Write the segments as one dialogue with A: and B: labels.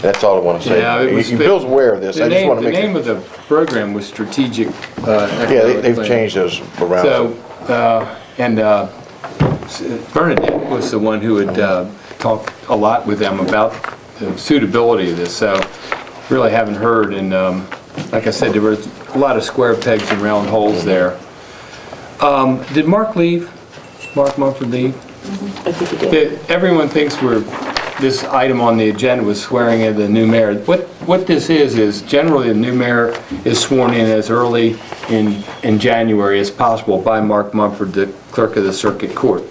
A: That's all I want to say.
B: Yeah, it was-
A: You- Bill's aware of this,
B: The
A: I just
B: name,
A: want to
B: the
A: make.
B: name of the program was Strategic uh,
A: Yeah, they-
B: Economic
A: they've
B: Planning.
A: changed those around.
B: So, uh, and uh, Bernadette was the one who had uh, talked a lot with them about the suitability of this, so really haven't heard, and um, like I said, there were a lot of square pegs and round holes there. Um, Did Mark leave? Mark Mumford leave?
C: I think you did.
B: that Everyone thinks we're, this item on the agenda was swearing in the new mayor. What, what this is, is generally the new mayor is sworn in as early in, in January as possible by Mark Mumford, the clerk of the circuit court.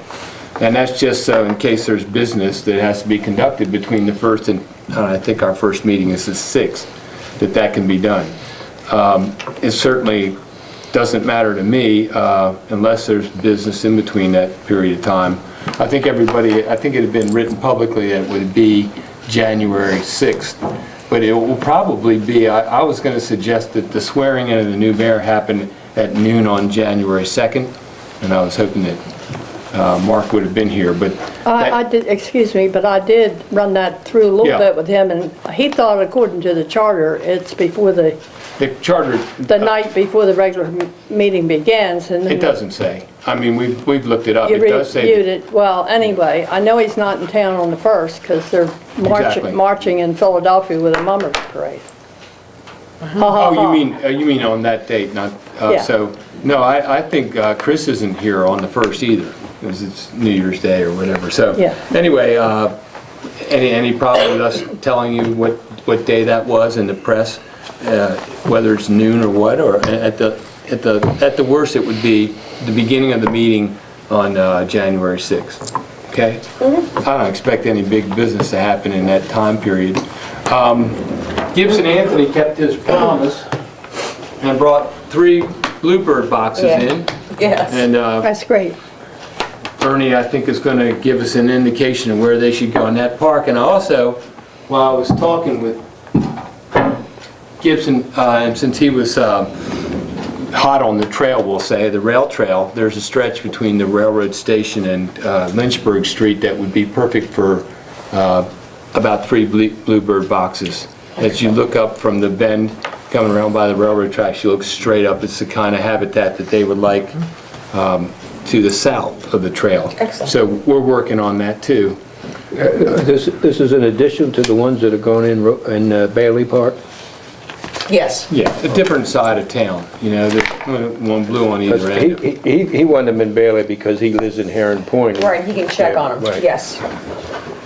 B: And that's just so in case there's business that has to be conducted between the first and, uh, I think our first meeting is the 6th, that that can be done it certainly doesn't matter to me uh, unless there's business in between that period of time. I think everybody, I think it had been written publicly that it would be January 6th, but it will probably be, I I was going to suggest that the swearing in of the new mayor happened at noon on January 2nd, and I was hoping that uh, Mark would have been here, but
D: I, I
B: that-
D: did, excuse me, but I did run that through a
B: Yeah.
D: little bit with him, and he thought according to the charter, it's before the,
B: the charter,
D: the night before the regular m- meeting begins, and then
B: Uh, it doesn't say. I mean, we've we've looked it up.
D: You
B: It does
D: reviewed
B: say,
D: it, well, anyway, I know he's not in town on the first, because they're
B: Exactly.
D: marching, marching in Philadelphia with a mummers parade.
B: oh, you mean, uh, you mean on that date, not, uh,
D: Yeah.
B: so, no, I I think uh, Chris isn't here on the 1st either, because it's New Year's Day or whatever, so.
D: Yeah.
B: Anyway, uh, any any problem with us telling you what what day that was in the press, uh, whether it's noon or what, or a- at the, at the, at the worst, it would be the beginning of the meeting on uh, January 6th, okay? I don't expect any big business to happen in that time period. Um, Gibson Anthony kept his promise and brought three Bluebird boxes
C: Yeah.
B: in,
C: Yes.
B: and uh,
D: That's great.
B: Ernie, I think, is going to give us an indication of where they should go in that park. And also, while I was talking with Gibson, uh, and since he was um, hot on the trail, we'll say, the rail trail, there's a stretch between the railroad station and uh, Lynchburg Street that would be perfect for uh, about three ble- bluebird boxes. As you look up from the bend, coming around by the railroad tracks, you look straight up, it's the kind of habitat that they would like um, to the south of the trail.
C: Excellent.
B: So we're working on that too.
E: This, this is in addition to the ones that are going in, Ro- in uh, Bailey Park?
C: Yes.
B: Yeah, a different side of town, you know, the- one blue on either end.
E: He,
B: of it.
E: he, he wanted them in Bailey because he lives in Heron Point.
C: Right, he can check on
E: Yeah,
C: them,
E: right.
C: yes.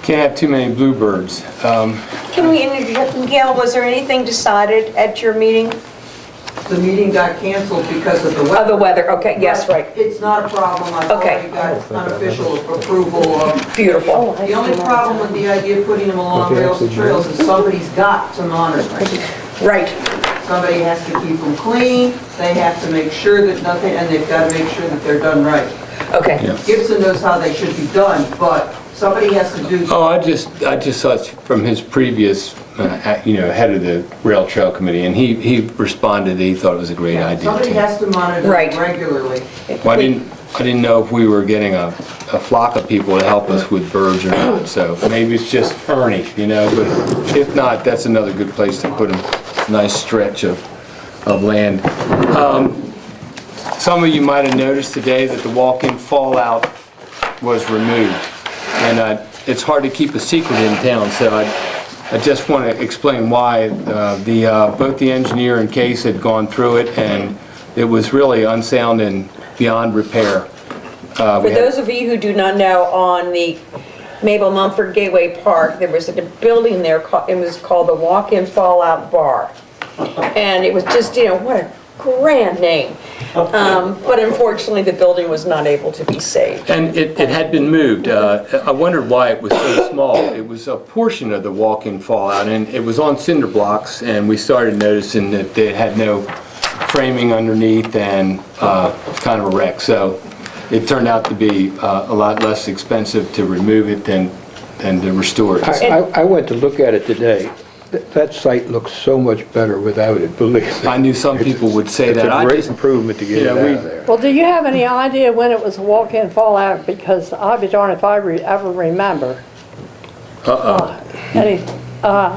B: Can't have too many bluebirds.
F: Can we, interview- Gail, was there anything decided at your meeting?
G: The meeting got canceled because of the weather.
C: Oh, the weather, okay, yes, right.
G: It's not a problem, I've
C: Okay.
G: already got unofficial approval of.
C: Beautiful.
F: Oh,
G: The only problem with the idea of putting them along rails and trails is somebody's got to monitor. it.
C: Right,
G: Somebody has to keep them clean, they have to make sure that nothing, and they've got to make sure that they're done right.
C: okay.
G: Gibson knows how they should be done, but somebody has to do,
B: Oh, I just, I just saw it from his previous, uh, act- you know, head of the rail trail committee, and he, he responded that he thought it was a great
G: somebody
B: idea
G: has to monitor
C: Right.
G: them regularly.
B: too. Well, I didn't, I didn't know if we were getting a, a flock of people to help us with birds or not, so maybe it's just Ernie, you know, but if not, that's another good place to put a nice stretch of, of land. Um, Some of you might have noticed today that the walk-in fallout was removed. And uh, it's hard to keep a secret in town, so I, I just want to explain why. Uh, The, uh, both the engineer and Case had gone through it, and it was really unsound and beyond repair. Uh,
C: For
B: we had-
C: those of you who do not know, on the Mabel Mumford Gateway Park, there was a building there, ca- it was called the Walk-In Fallout Bar. And it was just, you know, what a grand name. Um, But unfortunately, the building was not able to be saved.
B: And it, it had been moved. Uh, I wondered why it was so small. It was a portion of the walk-in fallout, and it was on cinder blocks, and we started noticing that they had no framing underneath and uh, kind of a wreck. So it turned out to be uh, a lot less expensive to remove it than, than to restore it.
E: I, I- I went to look at it today. Th- That site looks so much better without it, believe me.
B: I knew some people would say
E: It's
B: that. I
E: a great
B: just-
E: improvement to get it
B: Yeah,
E: out
B: we-
E: of there.
D: Well, do you have any idea when it was walk-in fallout? Because I'll be darned if I re- ever remember. Uh-uh. Any, uh,